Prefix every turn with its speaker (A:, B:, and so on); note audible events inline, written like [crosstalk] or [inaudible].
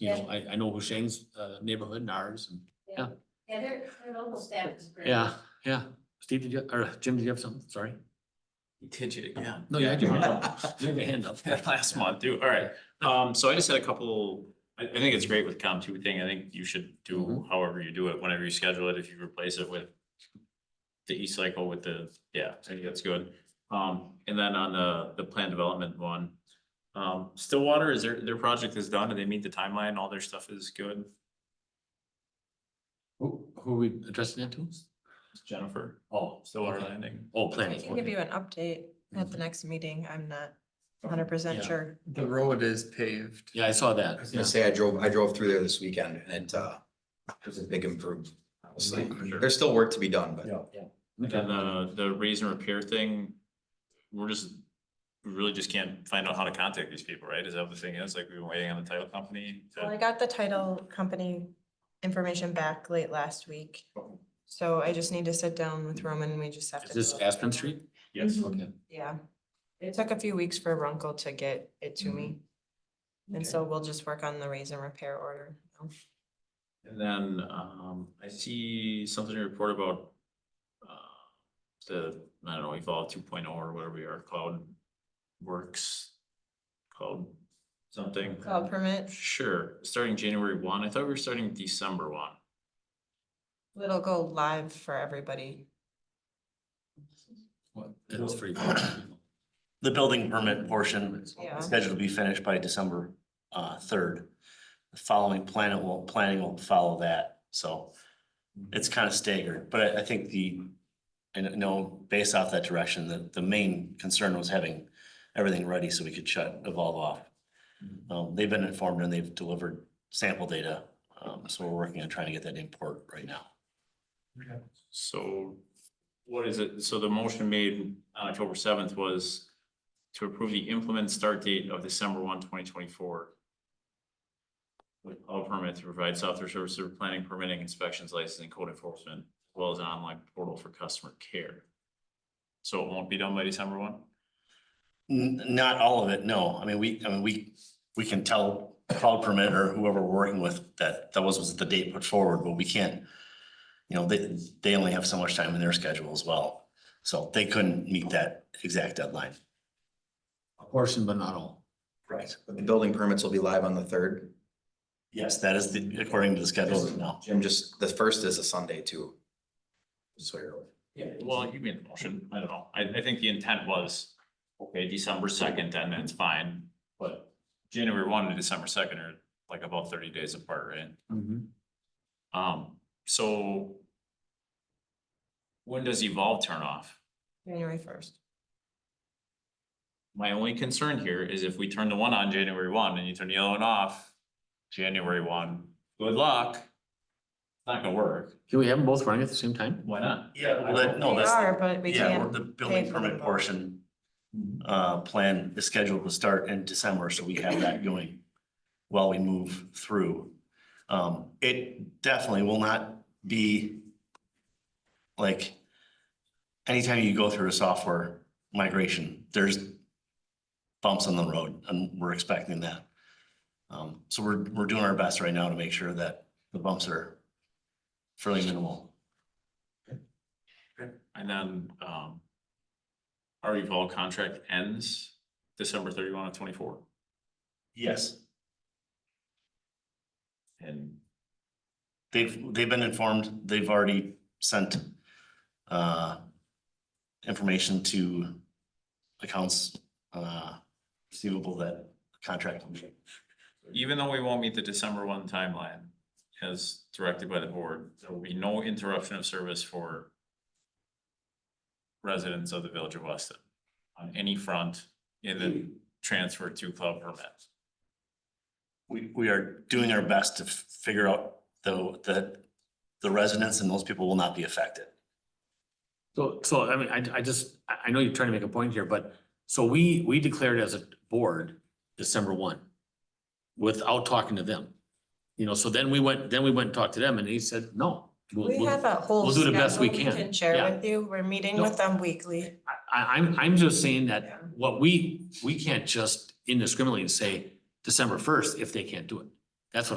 A: you know, I, I know Hushang's, uh, neighborhood and ours, and, Yeah.
B: Yeah, their, their local staff is great.
A: yeah, yeah. Steve, did you, or Jim, did you have something? Sorry.
C: Did you? Yeah.
A: Uh-huh. No, yeah, I do. [laughs] You have your hand up.
C: [laughs] Last month, too. All right. Um, so I just had a couple, I, I think it's great with Com two thing. I think you should do
A: Mhm.
C: however you do it, whenever you schedule it, if you replace it with the E-cycle with the, yeah, I think that's good. Um, and then on the, the plan development one, um, Stillwater, is their, their project is done and they meet the timeline, all their stuff is good.
A: Who, who are we addressing that to?
C: Jennifer,
A: Oh,
C: Stillwater
A: okay.
C: Landing.
A: Oh,
D: I
A: planning.
D: can give you an update at the next meeting. I'm not hundred
A: Yeah.
D: percent sure.
E: The road is paved.
A: Yeah, I saw
F: I
A: that.
F: was
A: Yeah.
F: gonna say, I drove, I drove through there this weekend and it, uh, it was a big improvement, honestly.
C: Sure.
F: There's still work to be done, but
A: Yeah,
C: And
A: Okay.
C: then the, the raise and repair thing, we're just, we really just can't find out how to contact these people, right? Is that what the thing is? Like, we've been waiting on the title company
D: Well, I
C: to.
D: got the title company information back late last week. So I just need to sit down with Roman and we just have to.
A: Is this
D: do it. Mm-hmm.
A: Aspen Street?
C: Yes.
A: Okay.
D: Yeah. It took a few weeks for Runkle to get it to me. And so we'll just work on the raise and repair order.
C: And then, um, I see something to report about, uh, the, I don't know, Evolve two oh or whatever we are, Cloud Works, Cloud something.
D: Call permit,
C: Sure, starting January one. I thought we were starting December one.
D: it'll go live for everybody.
A: Well, It was [clears throat] free.
G: The building permit portion is
D: Yeah.
G: scheduled to be finished by December uh third. The following planet will, planning will follow that, so it's kind of staggered, but I I think the. And I know based off that direction, the the main concern was having everything ready so we could shut Evolve off. Um, they've been informed and they've delivered sample data, um, so we're working on trying to get that import right now.
C: So what is it? So the motion made on October seventh was to approve the implement start date of December 1, 2024, With all permits to provide software services for planning, permitting, inspections, licensing, code enforcement, as well as an online portal for customer care. So it won't be done by December one?
G: N- not all of it, no. I mean, we, I mean, we, we can tell cloud permit or whoever we're working with that, that was, was the date put forward, but we can't. You know, they, they only have so much time in their schedule as well. So they couldn't meet that exact deadline.
A: A portion, but not all.
G: Right.
F: the building permits will be live on the third.
G: Yes, that is the, according to the schedule now.
F: Jim, just, the first is a Sunday too. So you're.
C: Yeah. Well, you made the motion. I don't know. I, I think the intent was, okay, December second, then it's fine. But January one to December second are like about thirty days apart, right?
A: Mhm.
C: Um, so when does Evolve turn off?
D: January first.
C: My only concern here is if we turn the one on January one and you turn the other one off January one, good luck. It's not gonna work.
A: Can we have them both running at the same time?
C: Why not?
G: Yeah, well, that- no,
D: We
G: that's.
D: are, but we
G: Yeah, we're-
D: can't.
G: the building
D: pay for
G: permit
D: them.
G: portion, uh, plan is scheduled to start in December, so we have that going while we move through. Um, it definitely will not be like anytime you go through a software migration, there's bumps on the road and we're expecting that. Um, so we're, we're doing our best right now to make sure that the bumps are fairly minimal.
C: And then, um, our Evolve contract ends December thirty-one of twenty-four.
G: Yes.
C: And
G: They've, they've been informed, they've already sent uh information to accounts uh receivable that contract. will be-
C: even though we won't meet the December one timeline as directed by the board, there will be no interruption of service for residents of the village of Weston on any front in the transfer to cloud permit.
G: We, we are doing our best to f- figure out though that the residents and those people will not be affected.
A: So, so I mean, I, I just, I, I know you're trying to make a point here, but so we, we declared as a board December one without talking to them. You know, so then we went, then we went and talked to them and he said, no. we'll-
D: We
A: we'll-
D: have a whole.
A: we'll do the best we
D: schedule
A: can.
D: Share
A: Yeah.
D: with you. We're meeting
A: No.
D: with them weekly.
A: I, I'm, I'm just saying
D: Yeah.
A: that what we, we can't just indiscriminately say December first if they can't do it. That's what